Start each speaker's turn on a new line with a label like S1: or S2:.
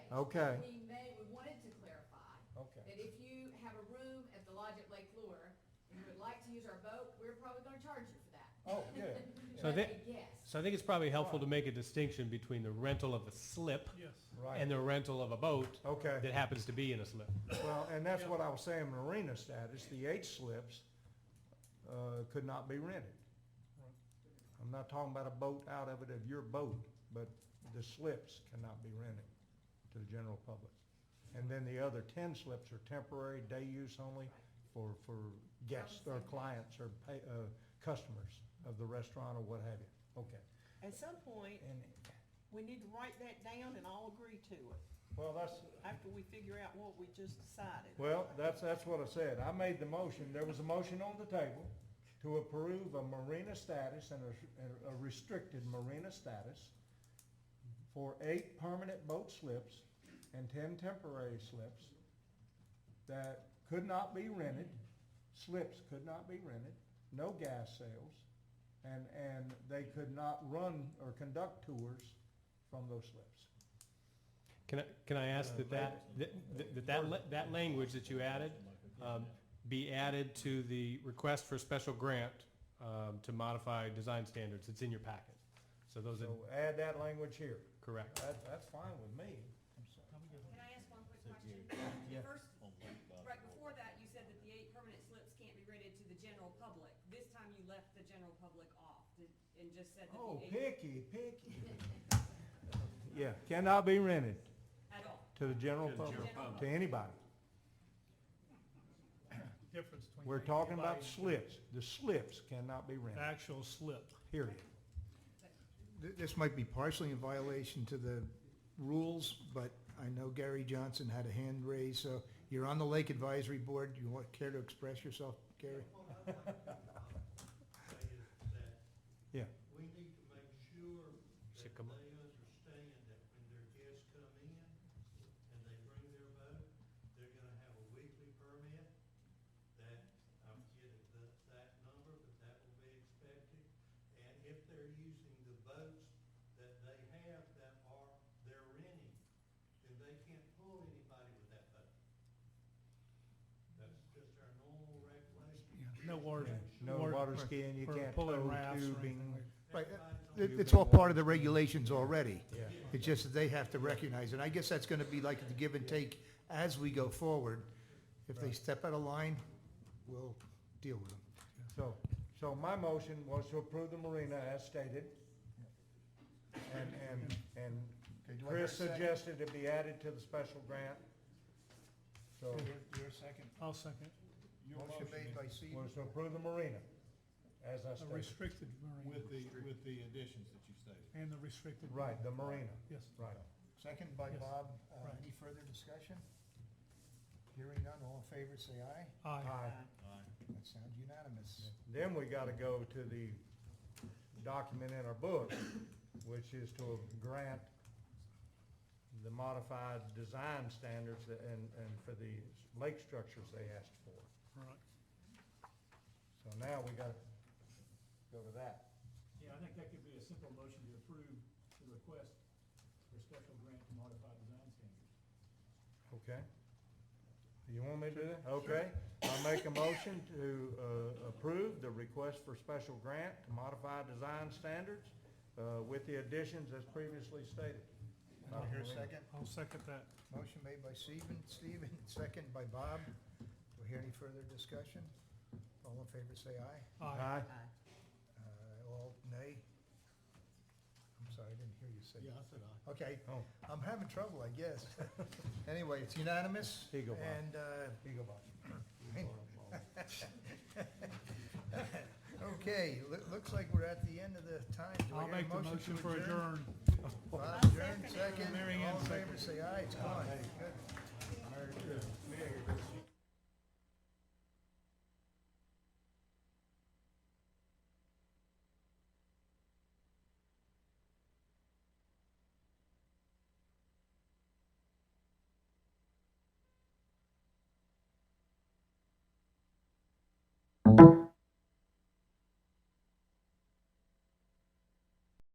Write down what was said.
S1: Okay.
S2: We may, we wanted to clarify
S1: Okay.
S2: that if you have a room at the lodge at Lake Lure, and you would like to use our boat, we're probably gonna charge you for that.
S1: Oh, good.
S3: So
S2: That's
S3: that-
S2: a guess.
S3: So I think it's probably helpful to make a distinction between the rental of a slip
S4: Yes.
S1: Right.
S3: and the rental of a boat
S1: Okay.
S3: that happens to be in a slip.
S1: Well, and that's what I was saying, marina status, the H slips, uh, could not be rented. I'm not talking about a boat out of it, of your boat, but the slips cannot be rented to the general public. And then the other ten slips are temporary, day use only for, for guests or clients or pay, uh, customers of the restaurant or what have you. Okay.
S5: At some point,
S1: And,
S5: we need to write that down and all agree to it,
S1: well, that's,
S5: after we figure out what we just decided.
S1: Well, that's, that's what I said. I made the motion. There was a motion on the table to approve a marina status and a, and a restricted marina status for eight permanent boat slips and ten temporary slips that could not be rented, slips could not be rented, no gas sales, and, and they could not run or conduct tours from those slips.
S3: Can I, can I ask that that,
S4: Uh,
S3: that, that, that, la- that language that you added um, be added to the request for special grant um, to modify design standards? It's in your packet. So those are
S1: So add that language here.
S3: correct.
S1: That, that's fine with me.
S6: Can I ask one quick question?
S1: Yeah.
S6: First, right before that, you said that the eight permanent slips can't be rented to the general public. This time you left the general public off did- and just said that
S1: Oh,
S6: the eight
S1: picky, picky. Yeah, cannot be rented
S6: at all.
S1: to the general
S4: To the
S1: public,
S6: general public.
S1: to anybody.
S4: Difference between.
S1: We're talking about
S4: anybody- Uh,
S1: slips. The slips cannot be rented,
S4: Actual slip.
S1: period.
S7: Th- This might be partially in violation to the rules, but I know Gary Johnson had a hand raised, so you're on the Lake Advisory Board. You want, care to express yourself, Gary?
S8: say is that
S1: Yeah.
S8: we need to make sure that
S3: Sycamore.
S8: they understand that when their guests come in and they bring their boat, they're gonna have a weekly permit that, I'm forgetting the, that number, but that will be expected. And if they're using the boats that they have that are, they're renting, then they can't pull anybody with that boat. That's just our normal regulation.
S4: No water.
S1: No water skiing, you
S4: for
S1: can't
S4: pulling
S1: tow
S4: rafts or anything
S1: tubing.
S4: like-
S7: Right, uh,
S8: Everybody's on
S7: it- it's all part of the regulations already.
S1: Yeah.
S7: It's just that they have to recognize, it. I guess that's gonna be like the give and take as we go forward. If they step out of line, we'll deal with them.
S1: So, so my motion was to approve the marina as stated. And, and, and Chris suggested it be added to the special grant. So,
S7: second.
S4: I'll second.
S7: Motion made by Seaver.
S1: was to approve the marina as I
S4: A
S1: stated.
S4: restricted marina
S9: With the, with the additions that you stated.
S4: and the restricted.
S1: Right, the marina,
S4: Yes.
S1: right.
S7: Second by
S4: Yes.
S7: Bob. Uh,
S4: Right.
S7: Any further discussion? Hearing none, all in favor, say aye.
S4: Aye.
S1: Aye.
S7: That sounds unanimous.
S1: Then we gotta go to the document in our book, which is to grant the modified design standards that- and, and for the lake structures they asked for.
S4: Right.
S1: So now we gotta go to that.
S10: Yeah, I think that could be a simple motion to approve the request for special grant to modify design standards.
S1: Okay. You want me to do that? Okay. I make a motion to, uh, approve the request for special grant to modify design standards, uh, with the additions as previously stated.
S7: Do I hear a second?
S4: I'll second that.
S7: Motion made by Steven, Steven, second by Bob. Do we hear any further discussion? All in favor, say aye.
S4: Aye.
S1: Aye.
S7: Uh, All nay? I'm sorry, I didn't hear you say.
S9: Yeah, I said aye.
S7: Okay,
S1: Oh,
S7: I'm having trouble, I guess. Anyway, it's unanimous.
S1: Here you go, Bob.
S7: And, uh,
S1: here you go, Bob.
S7: okay, loo- looks like we're at the end of the time. Do I
S4: I'll
S7: hear a
S4: make the motion
S7: to
S4: for adjourn.
S7: Bob,
S6: I'll
S7: adjourn,
S6: second it.
S7: second.
S4: Mary Ann,
S7: All in favor, say aye. It's gone. Good.
S1: Merry Christmas.